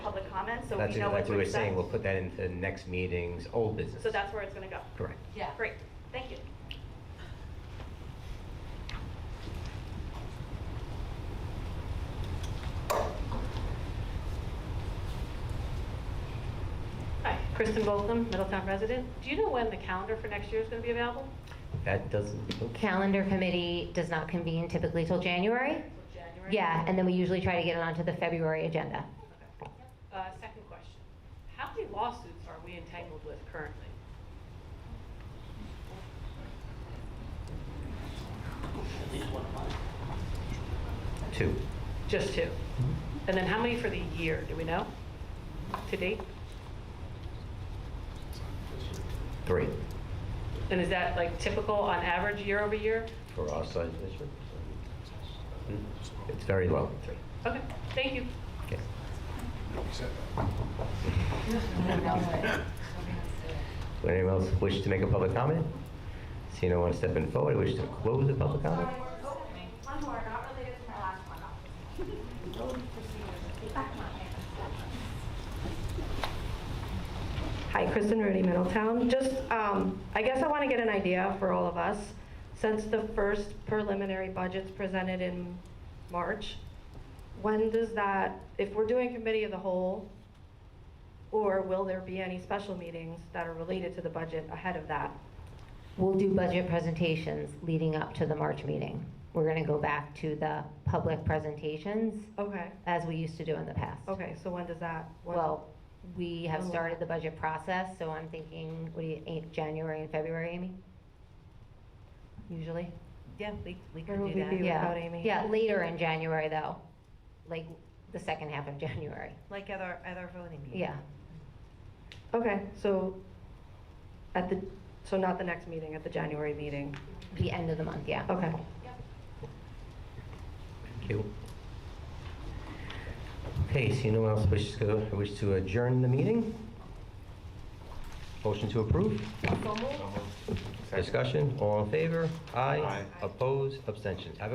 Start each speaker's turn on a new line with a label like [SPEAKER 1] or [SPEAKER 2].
[SPEAKER 1] comments, so
[SPEAKER 2] That's
[SPEAKER 1] we know what
[SPEAKER 2] like
[SPEAKER 1] to
[SPEAKER 2] we were saying, we'll
[SPEAKER 1] expect.
[SPEAKER 2] put that into next meeting's old business.
[SPEAKER 1] So that's where it's gonna go.
[SPEAKER 2] Correct.
[SPEAKER 3] Yeah.
[SPEAKER 1] Great, thank you. Hi, Kristen Boltham, Middletown resident. Do you know when the calendar for next year is gonna be available?
[SPEAKER 2] That doesn't, okay.
[SPEAKER 4] Calendar committee does not convene typically till January.
[SPEAKER 1] January?
[SPEAKER 4] Yeah, and then we usually try to get it onto the February agenda.
[SPEAKER 1] Uh, Second question. How many lawsuits are we entangled with currently?
[SPEAKER 2] two.
[SPEAKER 1] Just two. And then how many for the year, do we know? To date?
[SPEAKER 2] Three
[SPEAKER 1] And is that like typical on average year over year?
[SPEAKER 2] for our size district. Hmm, It's very low, three.
[SPEAKER 1] Okay, thank you.
[SPEAKER 2] Okay. Would anyone else wish to make a public comment? See no one stepping forward, wish to close the public comment?
[SPEAKER 3] One more, not related to my last one.
[SPEAKER 5] Hi, Kristen Rudy, Middletown. Just, um, I guess I want to get an idea for all of us, since the first preliminary budget's presented in March, when does that, if we're doing committee of the whole, or will there be any special meetings that are related to the budget ahead of that?
[SPEAKER 4] We'll do budget presentations leading up to the March meeting. We're going to go back to the public presentations
[SPEAKER 5] Okay,
[SPEAKER 4] as we used to do in the past.
[SPEAKER 5] okay, so when does that? when-
[SPEAKER 4] Well, we have started the budget process, so I'm thinking, what do you, eight- January and February, Amy? Usually?
[SPEAKER 6] Yeah, we, we
[SPEAKER 5] Where
[SPEAKER 6] could
[SPEAKER 5] will
[SPEAKER 6] do
[SPEAKER 5] we be?
[SPEAKER 6] that.
[SPEAKER 4] Yeah.
[SPEAKER 5] without Amy.
[SPEAKER 4] Yeah, later in January, though, like the second half of January.
[SPEAKER 6] Like at our, at our voting meeting.
[SPEAKER 4] Yeah.
[SPEAKER 5] Okay, so at the, so not the next meeting, at the January meeting?
[SPEAKER 4] The end of the month, yeah.
[SPEAKER 5] Okay.
[SPEAKER 2] Thank you. Okay, see no one else wishes to, wish to adjourn the meeting? Motion to approve? Discussion, all in favor? Aye. Opposed, abstentions. Have a